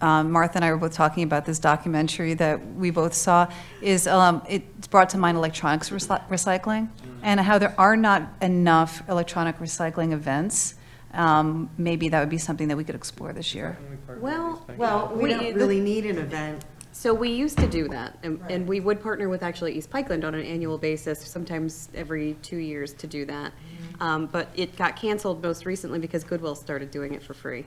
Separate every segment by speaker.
Speaker 1: um, Martha and I were both talking about this documentary that we both saw, is um, it's brought to mind electronics recy- recycling and how there are not enough electronic recycling events. Um, Maybe that would be something that we could explore this year.
Speaker 2: Well,
Speaker 3: Well, we
Speaker 2: We-
Speaker 3: don't really need an event.
Speaker 2: so we used to do that, and, and we would partner with actually East Pikeland on an annual basis, sometimes every two years to do that. Um, but it got canceled most recently because Goodwill started doing it for free.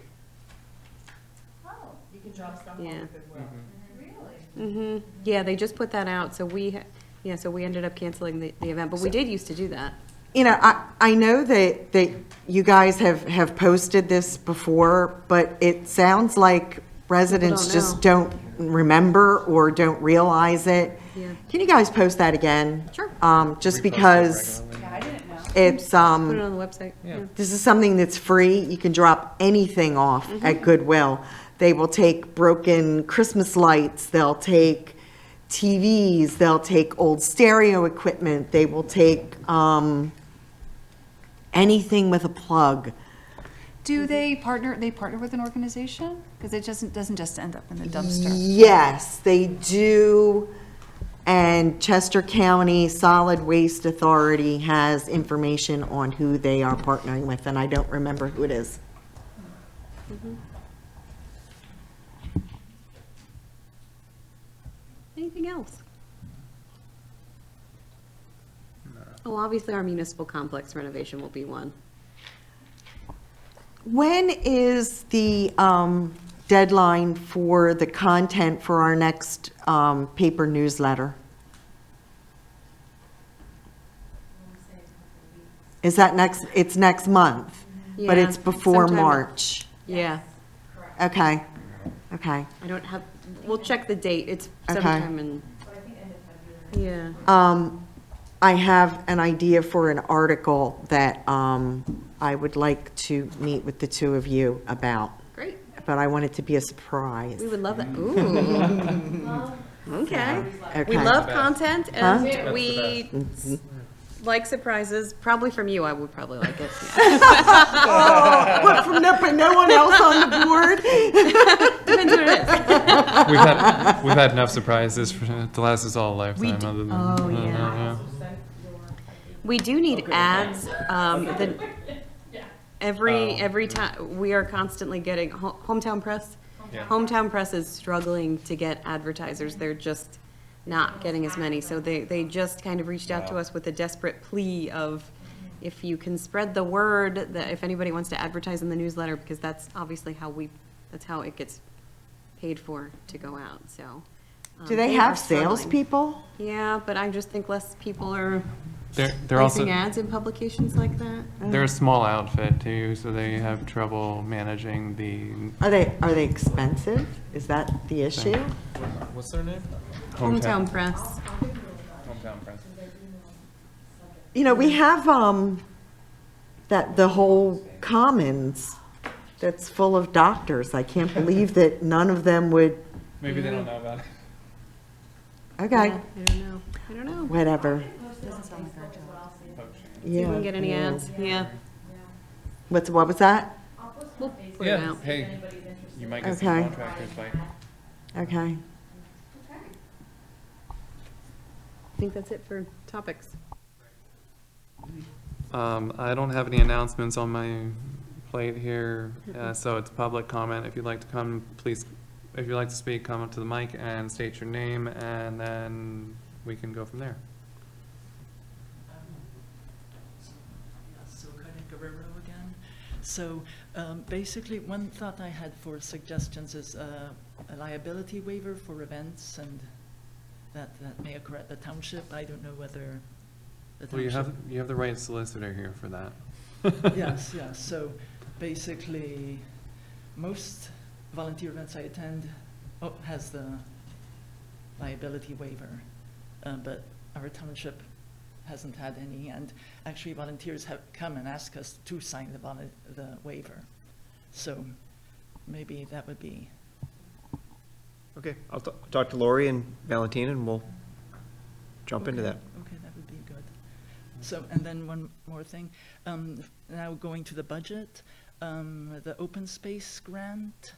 Speaker 4: Oh, you can drop stuff off
Speaker 2: Yeah.
Speaker 4: at Goodwill. Really?
Speaker 2: hmm yeah, they just put that out, so we, ha- yeah, so we ended up canceling the, the event, but we did used to do that.
Speaker 3: You know, I, I know that, that you guys have, have posted this before, but it sounds like residents
Speaker 2: know.
Speaker 3: just don't remember or don't realize it.
Speaker 2: Yeah.
Speaker 3: Can you guys post that again?
Speaker 2: Sure.
Speaker 3: Um, just because it's, um.
Speaker 2: Put it on the website. Yeah.
Speaker 3: This is something that's free. You can drop anything off at Goodwill. They will take broken Christmas lights, they'll take TVs, they'll take old stereo equipment, they will take um, anything with a plug.
Speaker 1: Do they partner, they partner with an organization? Because it doesn't, doesn't just end up in the dumpster.
Speaker 3: Yes, they do. And Chester County Solid Waste Authority has information on who they are partnering with, and I don't remember who it is.
Speaker 2: Anything else? Well, obviously, our municipal complex renovation will be one.
Speaker 3: When is the um, deadline for the content for our next um, paper newsletter? Is that next, it's next month, but
Speaker 2: Yeah,
Speaker 3: it's before
Speaker 2: sometime-
Speaker 3: March?
Speaker 2: Yeah,
Speaker 3: Okay, okay.
Speaker 2: I don't have, we'll check the date, it's
Speaker 3: Okay.
Speaker 2: sometime in. Yeah,
Speaker 3: Um, I have an idea for an article that um, I would like to meet with the two of you about,
Speaker 2: great,
Speaker 3: but I want it to be a surprise.
Speaker 2: we would love that, ooh. Okay, we
Speaker 3: Okay.
Speaker 2: love content, and we s- like surprises, probably from you, I would probably like it, yeah.
Speaker 3: But from no, but no one else on the board?
Speaker 2: Depends what it is.
Speaker 5: We've had, we've had enough surprises for, to last us all a lifetime.
Speaker 2: d-
Speaker 5: other than, uh,
Speaker 2: oh,
Speaker 5: I don't
Speaker 2: yeah.
Speaker 5: know,
Speaker 2: We do need ads. Um, the, every every time we are constantly getting ho- hometown press.
Speaker 5: Yeah.
Speaker 2: Hometown press is struggling to get advertisers. They're just not getting as many. So they they just kind of reached out to us with a desperate plea of. If you can spread the word, that if anybody wants to advertise in the newsletter, because that's obviously how we, that's how it gets paid for to go out, so. um,
Speaker 3: Do they
Speaker 2: are
Speaker 3: have
Speaker 2: struggling.
Speaker 3: salespeople?
Speaker 2: Yeah, but I just think less people are
Speaker 5: They're, they're also,
Speaker 2: placing ads in publications like that.
Speaker 5: they're a small outfit too, so they have trouble managing the
Speaker 3: Are they, are they expensive? Is that the issue?
Speaker 5: What's their name?
Speaker 2: Hometown press.
Speaker 5: Hometown Friends.
Speaker 3: You know, we have, um, that, the whole commons that's full of doctors. I can't believe that none of them would,
Speaker 5: Maybe they don't know about it.
Speaker 3: okay,
Speaker 2: Yeah, I don't know. I don't know.
Speaker 3: whatever.
Speaker 2: See if we
Speaker 3: Yeah.
Speaker 2: can get any ads. Yeah.
Speaker 3: What's, what was that?
Speaker 2: We'll put it out.
Speaker 5: hey, you might
Speaker 3: get some Okay.
Speaker 5: contractors like.
Speaker 3: Okay.
Speaker 2: I think that's it for topics.
Speaker 5: Um, I don't have any announcements on my plate here, uh, so it's public comment. If you'd like to come, please, if you'd like to speak, come up to the mic and state your name, and then we can go from there.
Speaker 6: Silcone Guerrero again. So um, basically, one thought I had for suggestions is uh, a liability waiver for events and that, that may occur at the township. I don't know whether the
Speaker 5: Well, you
Speaker 6: township.
Speaker 5: have, you have the right solicitor here for that.
Speaker 6: Yes, yes. So basically, most volunteer events I attend oh, has the liability waiver, uh, but our township hasn't had any, and actually volunteers have come and asked us to sign the volu- the waiver. So maybe that would be,
Speaker 7: Okay, I'll t- talk to Lori and Valentina, and we'll jump into
Speaker 6: Okay,
Speaker 7: that.
Speaker 6: Okay, that would be good. So, and then one more thing, um, now going to the budget, um, the open space grant,